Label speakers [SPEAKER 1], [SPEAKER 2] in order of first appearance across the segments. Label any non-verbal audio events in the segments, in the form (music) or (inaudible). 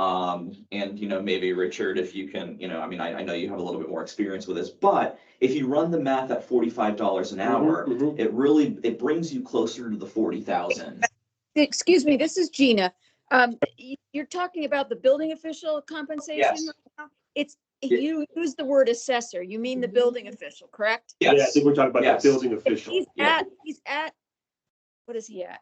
[SPEAKER 1] Um, and you know, maybe Richard, if you can, you know, I mean, I, I know you have a little bit more experience with this, but if you run the math at forty-five dollars an hour,
[SPEAKER 2] Mhm, mhm.
[SPEAKER 1] it really, it brings you closer to the forty thousand.
[SPEAKER 3] Excuse me, this is Gina. Um, y- you're talking about the building official compensation?
[SPEAKER 1] Yes.
[SPEAKER 3] right now? It's,
[SPEAKER 1] Ye-
[SPEAKER 3] you use the word assessor, you mean the building official, correct?
[SPEAKER 2] Yeah, I
[SPEAKER 1] Yes,
[SPEAKER 2] think we're talking about
[SPEAKER 1] Yes.
[SPEAKER 2] the building official.
[SPEAKER 3] He's
[SPEAKER 1] yeah.
[SPEAKER 3] at, he's at, what is he at?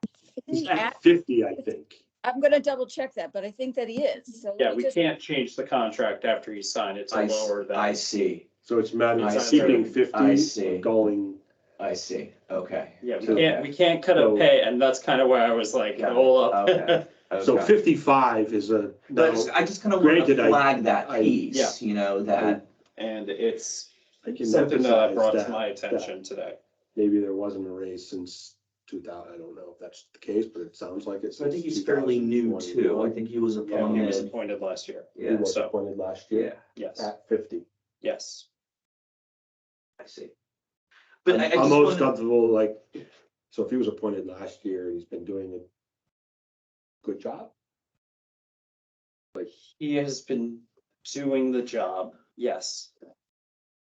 [SPEAKER 2] He's
[SPEAKER 3] Isn't he at,
[SPEAKER 2] at fifty, I think.
[SPEAKER 3] I'm gonna double check that, but I think that he is, so. let
[SPEAKER 4] Yeah,
[SPEAKER 3] me
[SPEAKER 4] we
[SPEAKER 3] just-
[SPEAKER 4] can't change the contract after he signed. It's a
[SPEAKER 1] I, s-
[SPEAKER 4] lower
[SPEAKER 1] I
[SPEAKER 4] than.
[SPEAKER 1] see,
[SPEAKER 2] So it's a matter
[SPEAKER 1] I
[SPEAKER 2] of
[SPEAKER 4] see.
[SPEAKER 2] keeping
[SPEAKER 1] I
[SPEAKER 2] fifty,
[SPEAKER 1] see.
[SPEAKER 2] or going,
[SPEAKER 1] I see, okay.
[SPEAKER 4] Yeah, we
[SPEAKER 2] So-
[SPEAKER 4] can't, we can't cut a
[SPEAKER 2] So-
[SPEAKER 4] pay and that's kind of why I was like,
[SPEAKER 1] Yeah,
[SPEAKER 4] hold
[SPEAKER 1] okay.
[SPEAKER 4] up.
[SPEAKER 2] so
[SPEAKER 1] okay.
[SPEAKER 2] fifty-five is a,
[SPEAKER 1] But I
[SPEAKER 2] now,
[SPEAKER 1] just- I just kind of want to
[SPEAKER 2] Granted, I-
[SPEAKER 1] flag that
[SPEAKER 2] I-
[SPEAKER 1] piece, you know, that,
[SPEAKER 4] (laughs) And it's
[SPEAKER 2] I can
[SPEAKER 4] something
[SPEAKER 1] uh,
[SPEAKER 4] that I
[SPEAKER 2] emphasize
[SPEAKER 4] brought to
[SPEAKER 2] that-
[SPEAKER 4] my attention today.
[SPEAKER 2] maybe there wasn't a raise since two thousand, I don't know if that's the case, but it sounds like it's.
[SPEAKER 1] so I think he's fairly new too, I think he was
[SPEAKER 4] Yeah, he was
[SPEAKER 1] appointed,
[SPEAKER 4] appointed last year.
[SPEAKER 2] He
[SPEAKER 1] yeah,
[SPEAKER 2] was
[SPEAKER 4] so-
[SPEAKER 2] appointed last
[SPEAKER 1] yeah,
[SPEAKER 2] year
[SPEAKER 4] Yes,
[SPEAKER 2] at fifty.
[SPEAKER 4] yes.
[SPEAKER 1] I see. But I, I
[SPEAKER 2] I'm-
[SPEAKER 1] just
[SPEAKER 2] I'm always
[SPEAKER 1] wanna,
[SPEAKER 2] comfortable, like, so if he was appointed last year, he's been doing a good job.
[SPEAKER 4] He has been doing the job, yes.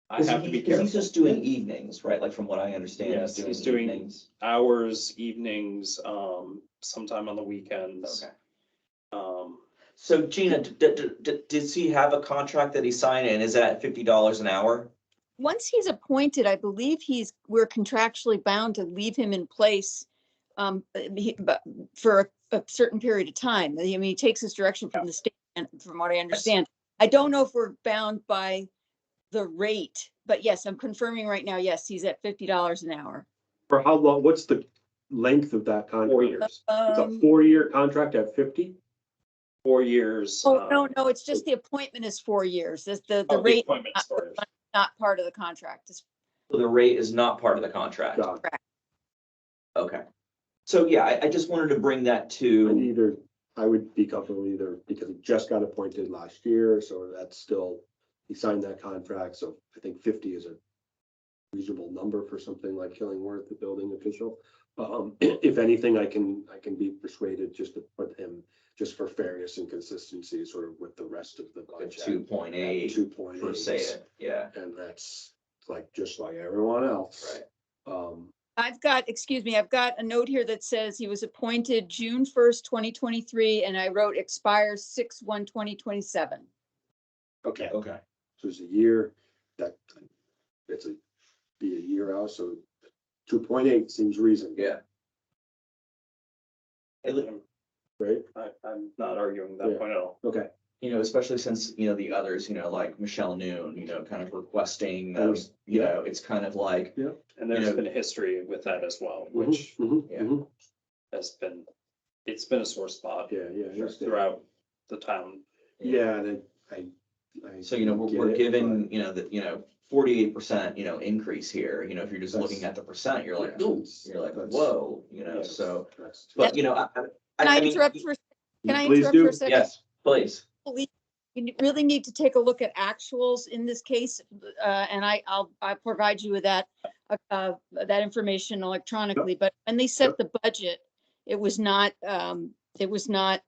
[SPEAKER 4] I
[SPEAKER 1] cause
[SPEAKER 4] have to
[SPEAKER 1] he,
[SPEAKER 4] be
[SPEAKER 1] 'cause he's
[SPEAKER 4] careful.
[SPEAKER 1] just doing evenings, right, like from what I understand,
[SPEAKER 4] Yes,
[SPEAKER 1] he's
[SPEAKER 4] he's
[SPEAKER 1] doing
[SPEAKER 4] doing-
[SPEAKER 1] evenings.
[SPEAKER 4] Hours, evenings, um, sometime on the weekends.
[SPEAKER 1] Okay.
[SPEAKER 4] Um,
[SPEAKER 1] So Gina, d- d- d- d- does he have a contract that he signed and is that fifty dollars an hour?
[SPEAKER 3] Once he's appointed, I believe he's, we're contractually bound to leave him in place um, but he- but for a a certain period of time. I mean, he takes his direction from the state and from what I understand. I don't know if we're bound by the rate, but yes, I'm confirming right now, yes, he's at fifty dollars an hour.
[SPEAKER 2] For how long, what's the length of that contract?
[SPEAKER 4] four years,
[SPEAKER 2] It's a
[SPEAKER 3] Um,
[SPEAKER 2] four-year contract at fifty?
[SPEAKER 4] four years.
[SPEAKER 3] Oh, no,
[SPEAKER 4] um,
[SPEAKER 3] no, it's just the appointment is four years. This- The,
[SPEAKER 4] oh,
[SPEAKER 3] the rate, uh,
[SPEAKER 4] appointment's four years.
[SPEAKER 3] not part of the contract. It's-
[SPEAKER 1] The rate is not part of the contract,
[SPEAKER 2] God,
[SPEAKER 1] okay. So yeah, I, I just wanted to bring that
[SPEAKER 2] I'd
[SPEAKER 1] to,
[SPEAKER 2] Either, I would be comfortable either because he just got appointed last year, so that's still, he signed that contract, so I think fifty is a reasonable number for something like Killingworth, the building official. Um, (clears throat) if anything, I can, I can be persuaded just to put him, just for fairness and consistency, sort of with the rest of the
[SPEAKER 1] two
[SPEAKER 2] budget.
[SPEAKER 1] point eight
[SPEAKER 2] Two point
[SPEAKER 1] for
[SPEAKER 2] eight,
[SPEAKER 1] Sayet, yeah,
[SPEAKER 2] and that's like, just like everyone else.
[SPEAKER 1] right.
[SPEAKER 2] Um,
[SPEAKER 3] I've got, excuse me, I've got a note here that says he was appointed June first, twenty twenty-three, and I wrote expires six one 2027
[SPEAKER 2] okay.
[SPEAKER 1] Okay.
[SPEAKER 2] So it's a year that, it's a, be a year out, so two point eight seems reasonable.
[SPEAKER 1] Yeah. It li-
[SPEAKER 2] Right?
[SPEAKER 4] I, I'm not arguing that
[SPEAKER 2] Yeah.
[SPEAKER 4] point at all.
[SPEAKER 2] Okay.
[SPEAKER 1] you know, especially since, you know, the others, you know, like Michelle Noon, you know, kind of requesting those, you
[SPEAKER 2] Yeah.
[SPEAKER 1] know, it's kind of like,
[SPEAKER 4] And
[SPEAKER 1] You
[SPEAKER 4] there's
[SPEAKER 1] know-
[SPEAKER 4] been history with that as well,
[SPEAKER 1] Mm-hmm,
[SPEAKER 4] which
[SPEAKER 2] Mhm, mhm,
[SPEAKER 1] yeah.
[SPEAKER 2] mhm.
[SPEAKER 4] has been, it's been a sore spot
[SPEAKER 2] Yeah, yeah. I understand.
[SPEAKER 4] throughout the town.
[SPEAKER 2] Yeah, and I, I. I
[SPEAKER 1] So, you know, we're,
[SPEAKER 2] get
[SPEAKER 1] we're
[SPEAKER 2] it,
[SPEAKER 1] given, you know, that, you know, forty-eight percent, you know, increase here, you know, if you're just looking
[SPEAKER 2] That's-
[SPEAKER 1] at the percent, you're like,
[SPEAKER 2] Yeah,
[SPEAKER 1] ooh,
[SPEAKER 2] that's-
[SPEAKER 1] you're like,
[SPEAKER 2] that's-
[SPEAKER 1] whoa, you
[SPEAKER 2] but-
[SPEAKER 1] know,
[SPEAKER 2] yes,
[SPEAKER 1] so.
[SPEAKER 2] that's-
[SPEAKER 1] But, you know, I, I- I.
[SPEAKER 3] Can I
[SPEAKER 1] mean,
[SPEAKER 3] interrupt for, can I
[SPEAKER 2] Please
[SPEAKER 3] interrupt for
[SPEAKER 2] do.
[SPEAKER 3] a second?
[SPEAKER 1] Yes, please.
[SPEAKER 3] believe you ne- really need to take a look at actuals in this case, uh, and I, I'll, I'll provide you with that, uh, uh, that information electronically, but when they set the budget, it was not, um, it was not,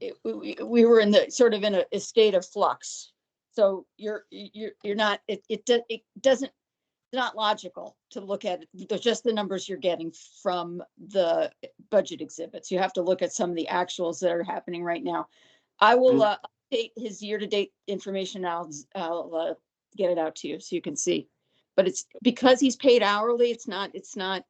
[SPEAKER 3] it, we- we, we were in the, sort of in a, a state of flux. So you're, you're, you're not, it, it, do- it doesn't, it's not logical to look at, they're just the numbers you're getting from the budget exhibits. You have to look at some of the actuals that are happening right now. I will,
[SPEAKER 2] Mm.
[SPEAKER 3] uh, update his year-to-date information. I'll, s- I'll, uh, get it out to you so you can see. But it's because he's paid hourly, it's not, it's not,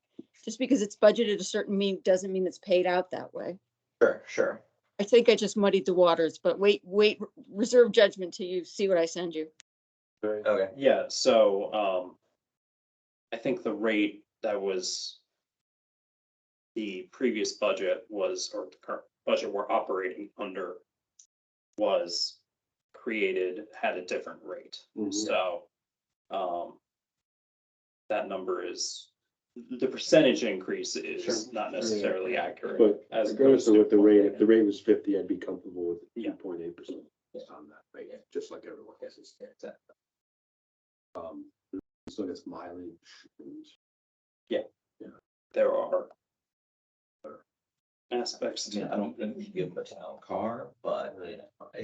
[SPEAKER 3] just because it's budgeted a certain mean, doesn't mean it's paid out that way.
[SPEAKER 1] Sure, sure.
[SPEAKER 3] I think I just muddied the waters, but wait, wait, reserve judgment till you see what I send you.
[SPEAKER 2] Right.
[SPEAKER 1] Okay.
[SPEAKER 4] Yeah, so, um, I think the rate that was the previous budget was, or the current budget we're operating under was created, had a different rate.
[SPEAKER 2] Mhm.
[SPEAKER 4] So, um, that number is, the percentage increase is
[SPEAKER 1] Sure.
[SPEAKER 4] not necessarily accurate.
[SPEAKER 2] But regardless
[SPEAKER 4] as
[SPEAKER 2] of
[SPEAKER 4] opposed to
[SPEAKER 2] what the rate, if the
[SPEAKER 4] 0.8.
[SPEAKER 2] rate was fifty, I'd be comfortable with
[SPEAKER 4] Yeah.
[SPEAKER 2] two point eight percent on that rate,
[SPEAKER 1] Yeah.
[SPEAKER 2] just like everyone else's. Um, so it's mileage. and-
[SPEAKER 4] There are aspects
[SPEAKER 1] Yeah,
[SPEAKER 4] to
[SPEAKER 1] I don't think you give him a town car, but you know,